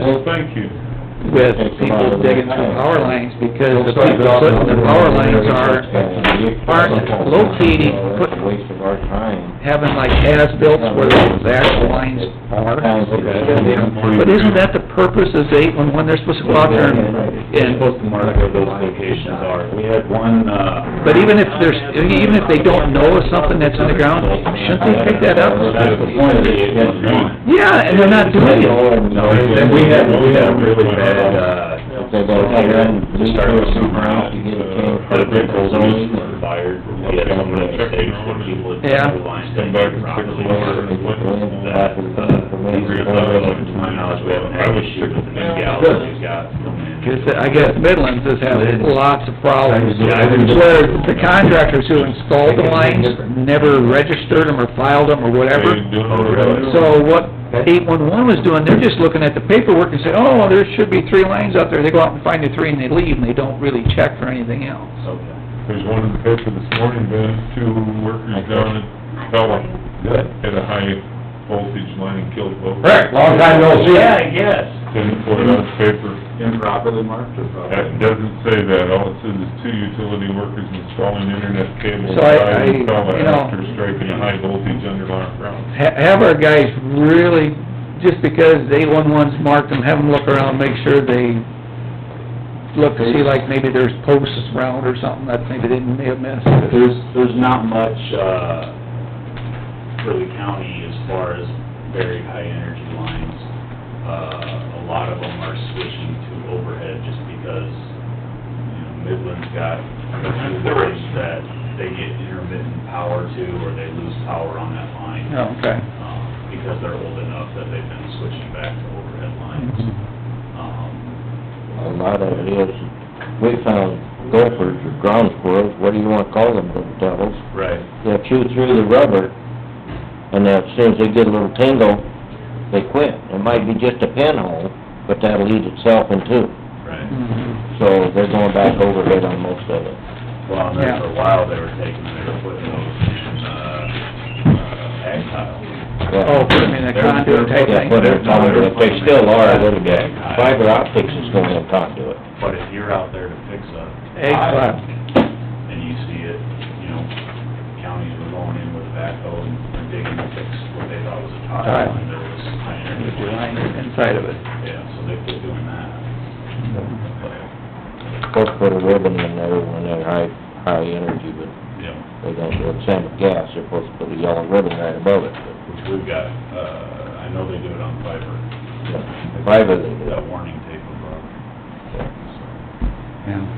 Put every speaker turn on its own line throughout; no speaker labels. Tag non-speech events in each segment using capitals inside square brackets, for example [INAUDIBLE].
Thank you.
with people digging through power lines, because the people putting the power lines are, aren't locating, put,
Waste of our time.
having like as-built where the actual lines are. But isn't that the purpose of eight-one-one, they're supposed to go out there and,
You're
and,
supposed to mark where those locations are. We had one, uh...
but even if there's, even if they don't know of something that's in the ground, shouldn't they pick that up?
That's the point of the eight-one-one.
Yeah, and they're not doing it.
No, and we had, we had a really bad, uh, to start with some ground, uh, the big holes were fired. We had some of the mistakes where people had...
Yeah.
Lines didn't work properly. That, uh, these are, to my knowledge, we haven't had issues with the new gal that we've got.
Cause I guess Midlands has had lots of problems,
Yeah, I didn't-
where the contractors who installed the lines never registered them or filed them or whatever. So what eight-one-one was doing, they're just looking at the paperwork and say, oh, well, there should be three lines out there. They go out and find the three and they leave and they don't really check for anything else.
Okay.
There's one in the paper this morning, Ben, two workers down at Pella, hit a high voltage line and killed both.
Rick, long time no see.
Yeah, I guess.
Didn't put it on paper.
Improperly marked or
That doesn't say that, all it says is two utility workers installing internet cable
So I-
inside
I-
in Pella
you know-
after striking a high voltage underground ground.
Ha- Have our guys really, just because eight-one-one's marked them, have them look around, make sure they look to see like maybe there's posts around or something that maybe they may have missed.
There's, there's not much, uh, for the county as far as very high energy lines. Uh, a lot of them are switching to overhead just because, you know, Midland's got a few lines that they get intermittent power to, or they lose power on that line.
Oh, Okay.
um, because they're old enough that they've been switching back to overhead lines.
Mm-hmm.
Um,
A lot of it is, we found gophers or ground squirrels, what do you wanna call them, little devils?
Right.
They'll chew through the rubber, and as soon as they get a little tingle, they quit. It might be just a pinhole, but that'll eat itself in two.
Right.
Mm-hmm.
So they're going back overhead on most of it.
Well, and then for a
Yeah.
while, they were taking, they were putting those in, uh, ag tile.
Oh, I mean, a conduit type
Yeah,
thing.
but it's on there, but they still are a little bit. Fiber optics is going in conduit.
But if you're out there to fix a
Egg
tile,
plant.
and you see it, you know, counties were going in with a backhoe and and digging to fix what they thought was a tile,
Tile.
and there was high
There's
energy
a line
line.
Inside of it.
Yeah, so they quit doing that.
Supposed to put a ribbon in there when they're high, high energy, but
Yeah,
they don't do it. Same with gas, they're supposed to put a yellow ribbon right above it.
which we've got, uh, I know they do it on fiber.
but Fiber, they do.
That warning tape above.
Yeah.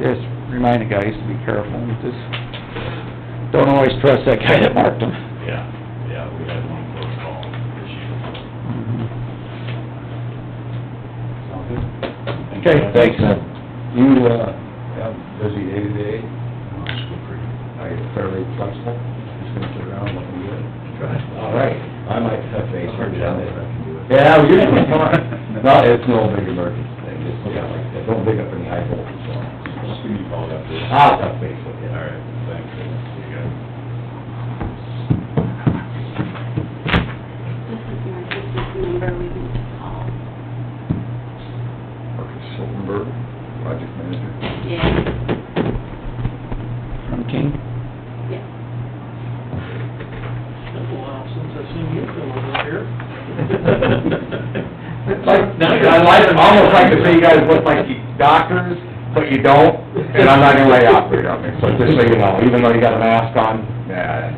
Just remind the guys to be careful, just don't always trust that guy that marked them.
Yeah, yeah, we had one close call this year. Sound good?
Okay,
Thanks, man.
You, uh, have busy day today, I am fairly flexible, just gonna sit around looking good. All right. I might touch base for John if I can do it. Yeah, well, you're doing
[LAUGHS]
fine. No, it's no big emergency thing, just, yeah, like, that. don't pick up any high voltage lines.
Just give me a call after this.
Ah.
I'll touch base with you.
All right, thanks. See you guys.
This is my business number we can call.
Marcus Silverberg, project manager.
Yeah.
From King?
Yeah.
Been a while since I've seen you come over
[LAUGHS]
here.
It's like, I like, almost like to say you guys look like you doctors, but you don't, and I'm not gonna lay operator on me, so just so you know, even though you got a mask on, yeah.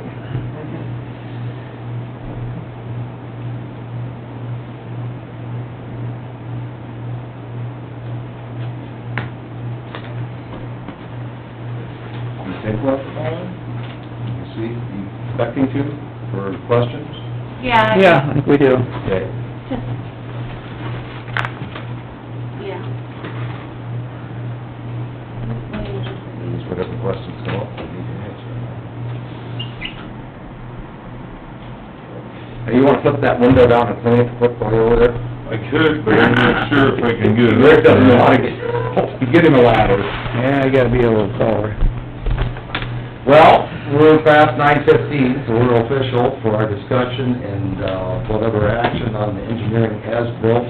You take what, Alan? You see, you expecting to, for questions?
Yeah.
Yeah, I think we do.
Okay.
Just- Yeah.
Just whatever questions come up, we need to answer. Hey, you wanna flip that window down and clean it quickly over there?
I could, but I'm not sure if I can get it. up
Rick doesn't know
there.
how to get, to get him a ladder.
Yeah, you gotta be a little taller.
Well, we're past nine fifteen, so we're official for our discussion and, uh, whatever action on the engineering as built